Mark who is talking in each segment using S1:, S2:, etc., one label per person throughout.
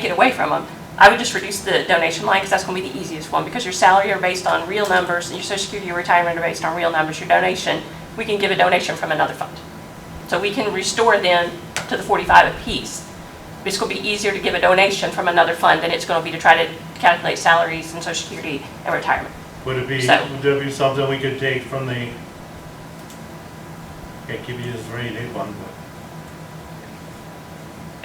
S1: take it away from them. I would just reduce the donation line because that's going to be the easiest one because your salary are based on real numbers and your social security, your retirement are based on real numbers. Your donation, we can give a donation from another fund. So we can restore then to the 45 apiece. It's going to be easier to give a donation from another fund than it's going to be to try to calculate salaries and social security and retirement.
S2: Would it be,
S1: So-
S2: would it be something we could take from the, can't give you this rate, eight one, but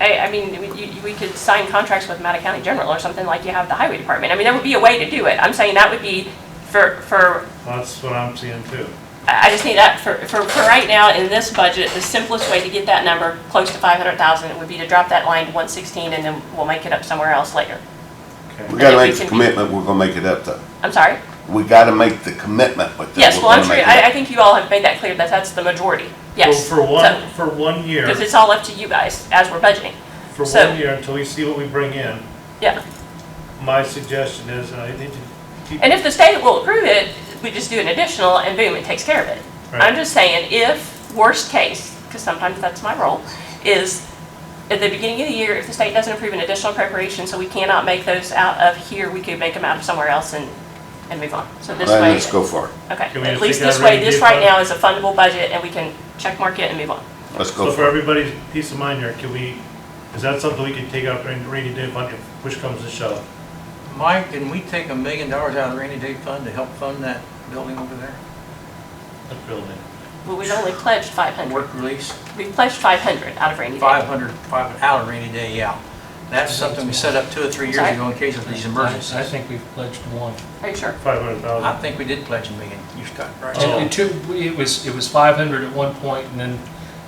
S1: I, I mean, we- you- we could sign contracts with Matta County General or something like you have the highway department. I mean, there would be a way to do it. I'm saying that would be for, for
S2: that's what I'm seeing too.
S1: I I just need that, for, for, for right now, in this budget, the simplest way to get that number close to five hundred thousand would be to drop that line to one sixteen, and then we'll make it up somewhere else later.
S2: Okay.
S3: We
S1: And if we
S3: gotta make the
S1: can-
S3: commitment, we're gonna make it up to.
S1: I'm sorry?
S3: We gotta make the commitment with them.
S1: Yes, well, I'm sure, I, I
S3: I.
S1: think you all have made that clear, that that's the majority, yes.
S2: Well, For one, for one year,
S1: Because it's all up to you guys as we're budgeting,
S2: for
S1: so-
S2: one year, until we see what we bring in,
S1: yeah.
S2: my suggestion is, and I need to keep.
S1: And if the state will approve it, we just do an additional, and boom, it takes care of it. I'm
S2: Right.
S1: just saying, if, worst case, because sometimes that's my role, is at the beginning of the year, if the state doesn't approve an additional appropriation, so we cannot make those out of here, we could make them out of somewhere else and, and move on. So this way,
S3: Let's go for it.
S1: okay,
S2: Can we
S1: at
S2: just
S1: least
S2: take out
S1: this way,
S2: revenue
S1: this right
S2: fund?
S1: now is a fundable budget, and we can check mark it and move on.
S3: Let's
S2: So
S3: go
S2: for
S3: for it.
S2: everybody's peace of mind here, can we, is that something we can take out during rainy day fund if push comes to shove?
S4: Mike, didn't we take a million dollars out of the rainy day fund to help fund that building over there?
S2: That building.
S1: Well, we've only pledged five hundred,
S4: Work release,
S1: we've pledged five hundred out of rainy day.
S4: 500, five- out of rainy day, yeah. That's something we set up two or three years
S1: Sorry?
S4: ago in case of these
S5: I I
S4: emergencies.
S5: think we've pledged one.
S1: Are you sure?
S2: Five hundred
S4: I
S2: thousand.
S4: think we did pledge a million, you Scott,
S2: Oh.
S4: right?
S5: And Uh, two, we- it was, it was 500 at one point, and then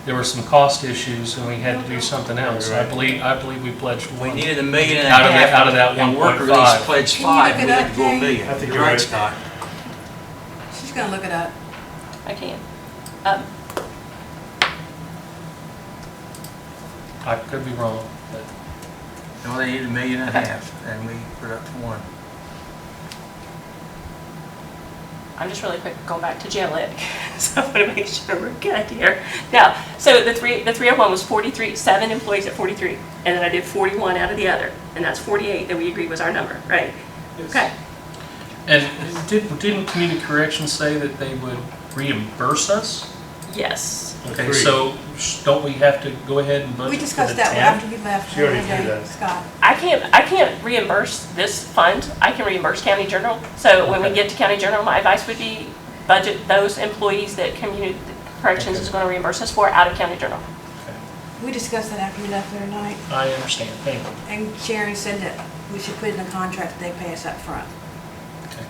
S5: there were some cost issues, and we had to do something else. I
S2: Right.
S5: believe, I believe we pledged
S4: We
S5: one.
S4: needed a million and a
S5: Oh. Out of that-
S4: half.
S5: out of that
S4: and work
S5: 1.5.
S4: release pledged
S6: Can you look
S4: five,
S6: it
S4: we had
S6: up,
S4: to go a
S6: Jane?
S4: million.
S2: I think
S4: You're
S2: you're right.
S4: right, Scott.
S6: She's gonna look it up.
S1: I can. Um,
S5: I could be wrong, but
S4: No, they needed a million and a half, and we put up one.
S1: I'm just really quick going back to jail lit, so I want to make sure we're good here. Now, so the three, the 301 was 43, seven employees at 43, and then I did 41 out of the other, and that's 48 that we agreed was our number, right? Okay,
S5: And did- didn't community corrections say that they would reimburse us?
S1: yes.
S5: Okay,
S2: Agreed.
S5: so sh- don't we have to go ahead and budget
S6: We
S5: for
S6: discussed
S5: the
S6: that
S5: 10?
S6: after we left.
S2: She already
S6: the other
S2: knew
S6: day,
S2: that.
S6: Scott.
S1: I can't, I can't reimburse this fund, I can reimburse county general. So when we
S5: Okay.
S1: get to county general, my advice would be budget those employees that community corrections is going to reimburse us for out of county general.
S6: We discussed that after we left the other night,
S5: I understand, thank you.
S6: and Sharon said that we should put in the contract that they pay us up front.
S5: Okay.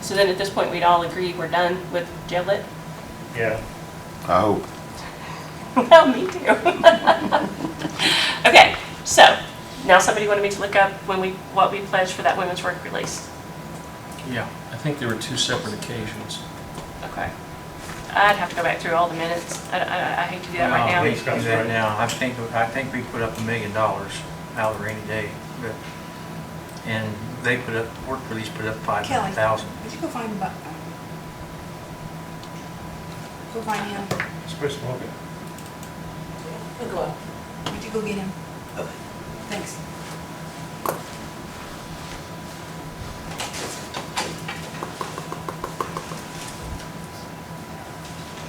S1: So then at this point, we'd all agree we're done with jail lit?
S2: Yeah.
S3: I hope.
S1: Well, me too. Okay, so, now somebody wanted me to look up when we, what we pledged for that women's work release.
S4: Yeah.
S5: I think there were two separate occasions.
S1: Okay. I'd have to go back through all the minutes. I, I, I hate to do that right
S4: Well,
S1: now.
S4: Uh, We can do that now. I think, I think we put up a million dollars out of rainy day, but, and they put up, work release put up five
S6: Kelly,
S4: hundred thousand.
S6: would you go find uh, Buck? Go find him.
S2: It's pretty smoking.
S6: Would you go get him? Thanks.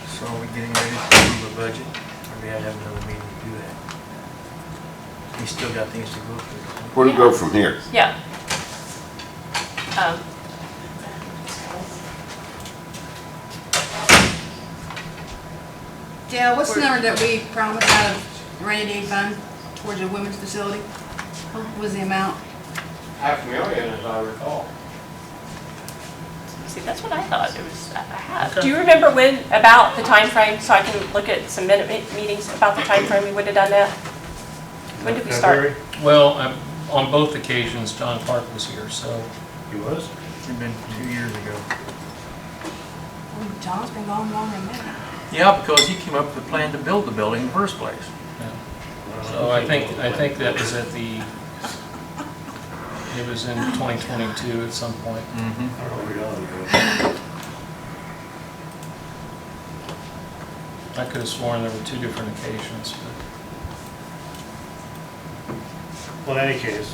S4: So are we getting ready to approve a budget? Or we had to have another meeting to do that? We still got things to go through.
S3: Where do we go from here?
S1: Yeah. Um,
S6: Dale, what's the number that we promised out of rainy day fund towards the women's facility? What was the amount?
S7: half million, as I recall.
S1: See, that's what I thought it was, I I had. Do you remember when, about the time frame? so I can look at some minute me- meetings about the time frame we would have done that? When did we start?
S2: February?
S5: Well, I'm- on both occasions, John Clark was here, so
S2: He was?
S4: It's been two years ago.
S6: Oh, John's been gone longer than that.
S4: Yeah, because he came up with a plan to build the building in the first place.
S5: So I think, I think that was at the, it was in 2022 at some point.
S4: Mm-hmm.
S2: I don't know where y'all are.
S5: I could have sworn there were two different occasions, but
S2: Well, in any case,